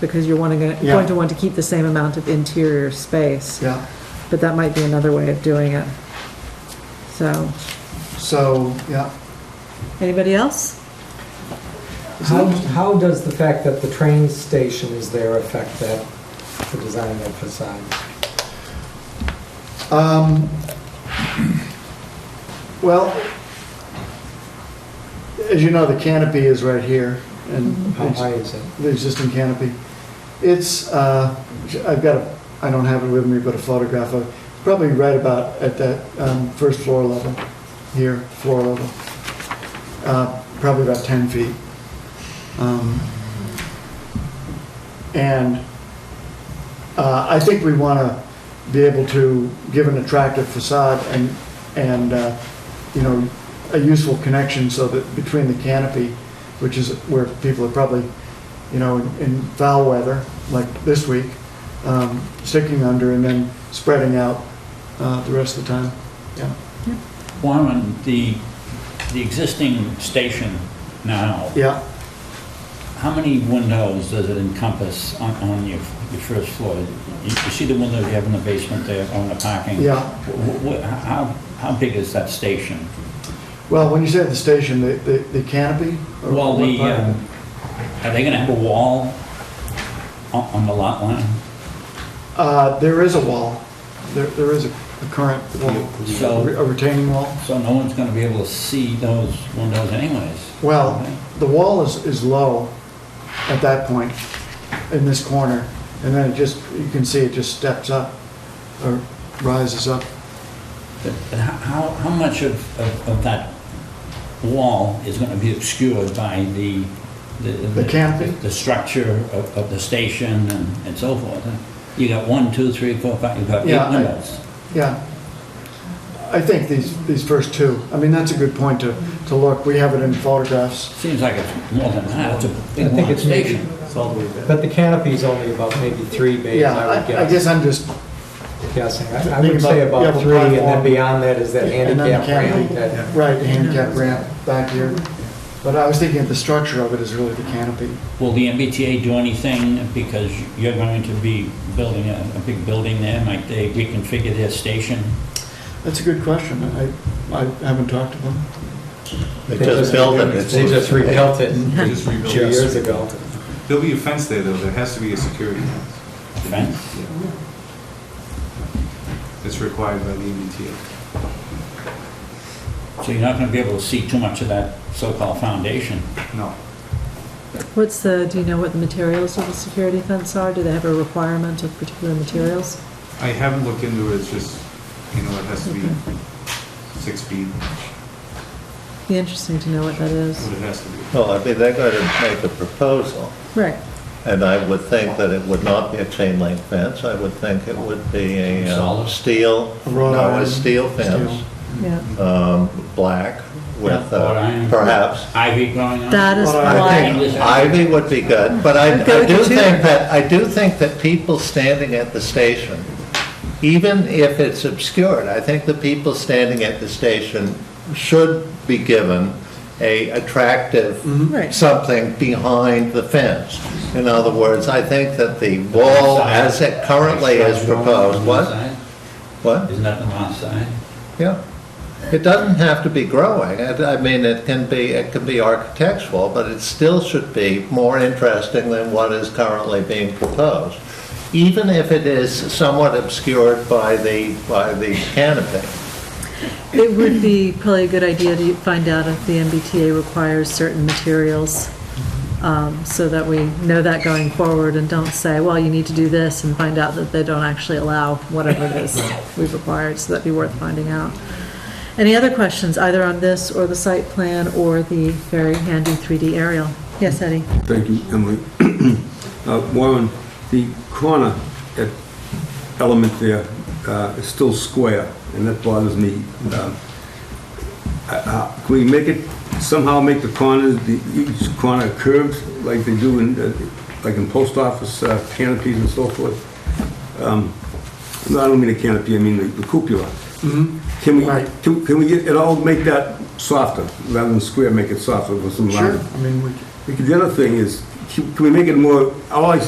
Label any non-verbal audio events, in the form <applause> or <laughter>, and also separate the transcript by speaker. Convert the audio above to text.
Speaker 1: because you're wanting, to-
Speaker 2: Yeah.
Speaker 1: going to want to keep the same amount of interior space.
Speaker 2: Yeah,
Speaker 1: But that might be another way of doing it. So,
Speaker 2: so, yeah.
Speaker 1: anybody else?
Speaker 3: How, how does the fact that the train station is there affect that, the design of that facade?
Speaker 2: Um, Well, as you know, the canopy is right here, and
Speaker 3: How high is it?
Speaker 2: the existing canopy. It's, uh, I've got a, I don't have it with me, but a photograph of, probably right about at that um, first floor level, here, floor level. Uh, Probably about 10 feet. Um, And uh, I think we want to be able to give an attractive facade and, and, uh, you know, a useful connection so that between the canopy, which is where people are probably you know, in, in foul weather, like this week, um, sticking under and then spreading out uh, the rest of the time. Yeah.
Speaker 4: Wyman, the, the existing station now,
Speaker 2: Yeah.
Speaker 4: how many windows does it encompass on, on your, your first floor? You, you see the windows you have in the basement there, on the parking?
Speaker 2: Yeah.
Speaker 4: Wh- wh- how, how big is that station?
Speaker 2: Well, when you say the station, the, the, the canopy? or
Speaker 4: Well,
Speaker 2: what
Speaker 4: the,
Speaker 2: part?
Speaker 4: um, are they gonna have a wall on, on the lot line?
Speaker 2: Uh, there is a wall. There, there is a, a current wall,
Speaker 4: So-
Speaker 2: a retaining wall.
Speaker 4: So no one's gonna be able to see those windows anyways?
Speaker 2: Well, the wall is, is low at that point in this corner, and then it just, you can see it just steps up or rises up.
Speaker 4: But but how- How, how much of, of of that wall is going to be obscured by the...
Speaker 2: The canopy?
Speaker 4: The structure of, of the station and and so forth? You got one, two, three, four, five, you've got
Speaker 2: Yeah, I-
Speaker 4: eight windows.
Speaker 2: Yeah. I think these, these first two, I mean, that's a good point to, to look. We have it in photographs.
Speaker 4: Seems like it's more than that, it's a
Speaker 3: I
Speaker 4: big
Speaker 3: think
Speaker 4: long
Speaker 3: it's maybe-
Speaker 4: station.
Speaker 3: But the canopy's only about maybe three bays,
Speaker 2: Yeah,
Speaker 3: I would
Speaker 2: I I
Speaker 3: guess,
Speaker 2: guess I'm just,
Speaker 3: guessing. I I
Speaker 2: Think
Speaker 3: would say
Speaker 2: about-
Speaker 3: about
Speaker 2: yeah,
Speaker 3: three, and then
Speaker 2: platform.
Speaker 3: beyond that is that
Speaker 2: And then the
Speaker 3: handicap
Speaker 2: canopy.
Speaker 3: ramp that,
Speaker 2: right, the handicap ramp back here. But I was thinking of the structure of it is really the canopy.
Speaker 4: Will the MBTA do anything because you're going to be building a, a big building there? Might they reconfigure their station?
Speaker 2: That's a good question. I, I haven't talked to them.
Speaker 5: They
Speaker 3: They
Speaker 5: just
Speaker 3: just-
Speaker 5: built it. It's-
Speaker 3: they just rebuilt it
Speaker 5: <laughs>
Speaker 6: They just rebuilt
Speaker 3: two
Speaker 6: it.
Speaker 3: years ago.
Speaker 6: There'll be a fence there, though, there has to be a security fence.
Speaker 4: Fence?
Speaker 6: Yeah. It's required by the E MBTA.
Speaker 4: So you're not going to be able to see too much of that so-called foundation.
Speaker 6: No,
Speaker 1: What's the, do you know what the materials of the security fence are? Do they have a requirement of particular materials?
Speaker 6: I haven't looked into it, it's just, you know, it has to be six feet,
Speaker 1: Be interesting to know what that is.
Speaker 6: what it has to be.
Speaker 5: Well, I mean, they're going to make a proposal,
Speaker 1: Right.
Speaker 5: and I would think that it would not be a chain link fence. I would think it would be a uh,
Speaker 4: Solid?
Speaker 5: steel,
Speaker 2: A wrought
Speaker 5: no,
Speaker 2: iron
Speaker 5: a steel fence,
Speaker 2: steel.
Speaker 1: Yeah.
Speaker 5: um, black with,
Speaker 4: Yeah, wrought
Speaker 5: uh,
Speaker 4: iron.
Speaker 5: perhaps.
Speaker 4: Ivy growing on it?
Speaker 1: That is
Speaker 2: Well, I
Speaker 5: I
Speaker 1: why,
Speaker 5: think ivy would be good, but I
Speaker 1: I'd go
Speaker 5: I do
Speaker 1: with you too.
Speaker 5: think that, I do think that people standing at the station, even if it's obscured, I think the people standing at the station should be given a attractive
Speaker 1: right,
Speaker 5: something behind the fence. In other words, I think that the wall as it currently is proposed, what, what?
Speaker 4: Isn't that the north side?
Speaker 5: Yeah. It doesn't have to be growing. I I mean, it can be, it can be architectural, but it still should be more interesting than what is currently being proposed, even if it is somewhat obscured by the, by the canopy.
Speaker 1: it would be probably a good idea to find out if the MBTA requires certain materials, um, so that we know that going forward and don't say, well, you need to do this, and find out that they don't actually allow whatever it is we've required, so that'd be worth finding out. Any other questions, either on this, or the site plan, or the very handy 3D aerial? Yes, Eddie?
Speaker 7: Thank you, Emily. <clears throat> Uh, Warren, the corner at element there uh, is still square, and that bothers me. Um, I- I- Can we make it, somehow make the corners, the- each corner curved like they do in, uh, like in post office uh, canopies and so forth? Um, No, I don't mean a canopy, I mean the the cupola. Can we,
Speaker 2: Mm-hmm. Right.
Speaker 7: can can we get, it all make that softer, rather than square, make it softer with some
Speaker 2: Sure,
Speaker 7: line?
Speaker 2: I mean, we,
Speaker 7: The other thing is, can can we make it more, oh, I like